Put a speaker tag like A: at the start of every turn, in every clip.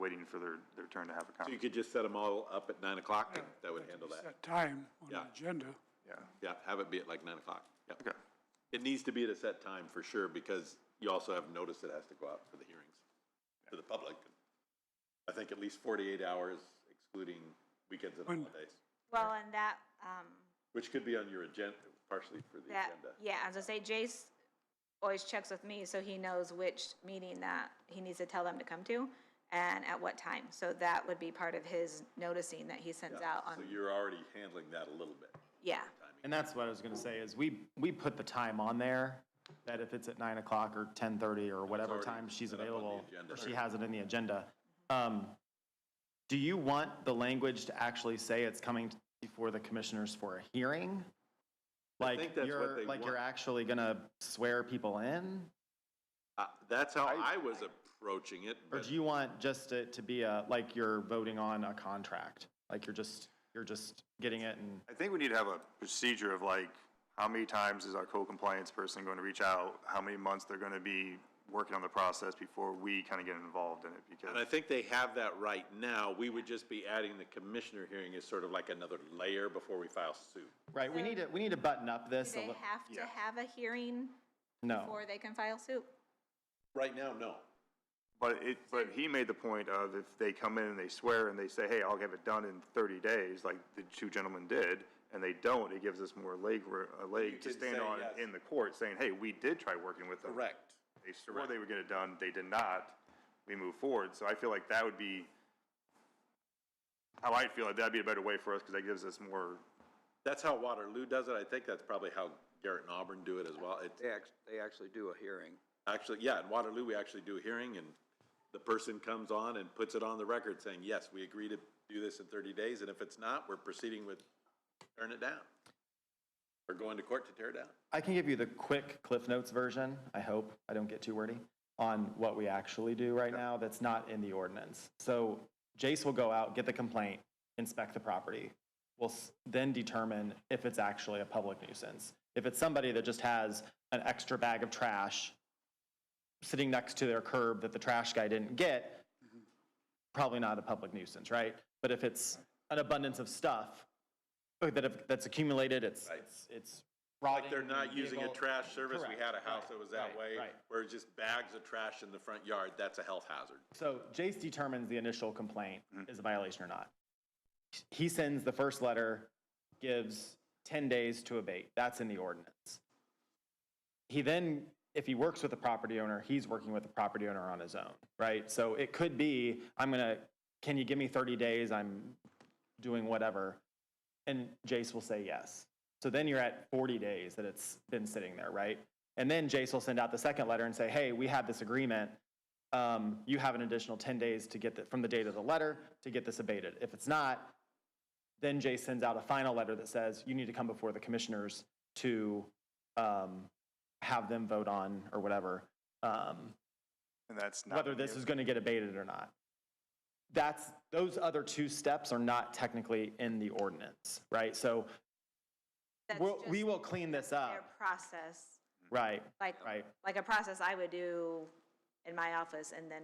A: waiting for their, their turn to have a
B: So you
A: comment.
B: could just set them all up at nine o'clock, and that would handle that.
C: Set time on the
B: Yeah.
C: agenda.
A: Yeah,
B: Yeah, have it be at like nine o'clock. Yeah.
A: okay,
B: It needs to be at a set time for sure, because you also have notice that has to go out for the hearings to the public. I think at least forty-eight hours excluding weekends and
C: When-
B: holidays,
D: Well, and that, um,
B: which could be on your agenda, partially for the
D: that,
B: agenda.
D: yeah, as I say, Jace always checks with me, so he knows which meeting that he needs to tell them to come to and at what time. So that would be part of his noticing that he sends out
B: So
D: on,
B: you're already handling that a little bit.
D: yeah.
E: And that's what I was gonna say, is we, we put the time on there, that if it's at nine o'clock or ten thirty or whatever
B: already
E: time she's
B: set up on the
E: available,
B: agenda.
E: or she has it in the agenda. Um, do you want the language to actually say it's coming before the commissioners for a hearing?
B: think
E: Like
B: that's what
E: you're,
B: they
E: like you're
B: want.
E: actually gonna swear people in?
B: Uh, that's how I was approaching it,
E: Or
B: but
E: do you want just it to be a, like you're voting on a contract? Like you're just, you're just getting it and
A: I think we need to have a procedure of like, how many times is our code compliance person going to reach out? How many months they're gonna be working on the process before we kind of get involved in it?
B: And I
A: Because,
B: think they have that right now. We would just be adding the commissioner hearing as sort of like another layer before we file suit.
E: Right, we need to, we need to button up
D: Do
E: this a
D: they
E: little,
D: have to have a hearing
E: no.
D: before they can file suit?
B: Right now, no.
A: but it, but he made the point of if they come in and they swear and they say, hey, I'll have it done in thirty days, like the two gentlemen did, and they don't, it gives us more leg, a leg to
B: can
A: stand
B: say
A: on
B: yes.
A: in the court saying, hey, we did try working with them.
B: Correct.
A: They swore they would get it done, they did not, we move forward, so I feel like that would be how I feel, like that'd be a better way for us, because that gives us more,
B: That's how Waterloo does it. I think that's probably how Garrett and Auburn do it as well. It's
F: They act, they actually do a hearing.
B: actually, yeah, in Waterloo, we actually do a hearing and the person comes on and puts it on the record saying, yes, we agree to do this in thirty days, and if it's not, we're proceeding with tearing it down. Or going to court to tear it down.
E: I can give you the quick Cliff Notes version, I hope, I don't get too wordy, on what we actually do right now that's not in the ordinance. So Jace will go out, get the complaint, inspect the property. We'll s- then determine if it's actually a public nuisance. If it's somebody that just has an extra bag of trash sitting next to their curb that the trash guy didn't get, probably not a public nuisance, right? But if it's an abundance of stuff uh, that have, that's accumulated, it's, it's, it's rotting.
B: Like they're not using a
E: vehicle-
B: trash service. We had a
E: Correct,
B: house
E: right,
B: that was that
E: right,
B: way,
E: right.
B: where it's just bags of trash in the front yard. That's a health hazard.
E: So Jace determines the initial complaint is a violation or not. He sends the first letter, gives 10 days to abate. That's in the ordinance. He then, if he works with the property owner, he's working with the property owner on his own, right? So it could be, I'm going to, can you give me 30 days? I'm doing whatever. And Jace will say yes. So then you're at 40 days that it's been sitting there, right? And then Jace will send out the second letter and say, hey, we have this agreement um, you have an additional 10 days to get the, from the date of the letter to get this abated. If it's not, then Jay sends out a final letter that says you need to come before the commissioners to um, have them vote on or whatever, um,
A: and that's not.
E: whether this is going to get abated or not. That's, those other two steps are not technically in the ordinance, right? So
D: That's
E: we'll, we
D: just
E: will clean this
D: Their
E: up,
D: process,
E: right,
D: like,
E: right.
D: like a process I would do in my office and then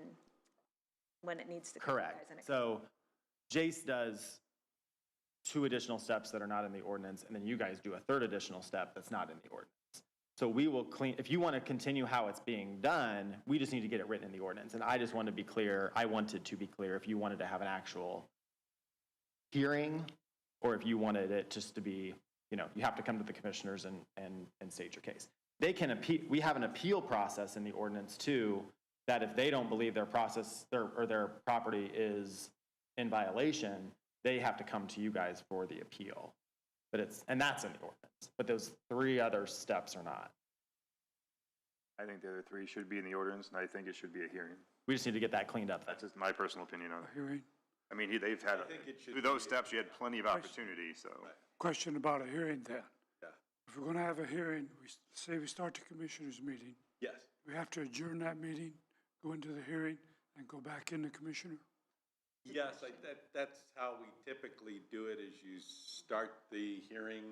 D: when it needs to. come to you guys
E: Correct.
D: and it-
E: So Jace does two additional steps that are not in the ordinance, and then you guys do a third additional step that's not in the ordinance. So we will clean, if you want to continue how it's being done, we just need to get it written in the ordinance. And I just want to be clear, I wanted to be clear, if you wanted to have an actual hearing, or if you wanted it just to be, you know, you have to come to the commissioners and, and, and state your case. They can appeal, we have an appeal process in the ordinance too, that if they don't believe their process, their, or their property is in violation, they have to come to you guys for the appeal. But it's, and that's in the ordinance, but those three other steps are not.
A: I think the other three should be in the ordinance, and I think it should be a hearing.
E: We just need to get that cleaned up.
A: That's just my personal opinion on it.
C: Hearing,
A: I mean, he- they've had,
B: think it should
A: through those steps, you had plenty of opportunity, so.
C: question about a hearing then.
B: Yeah.
C: If we're going to have a hearing, we s- say we start the commissioners' meeting,
B: Yes.
C: we have to adjourn that meeting, go into the hearing, and go back in the commissioner?
B: Yes, I, that, that's how we typically do it, is you start the hearing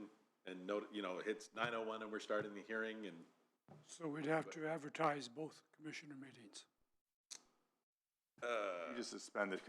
B: and note, you know, it's nine oh one and we're starting the hearing and
C: So we'd have to advertise both commissioner meetings.
A: You just suspend the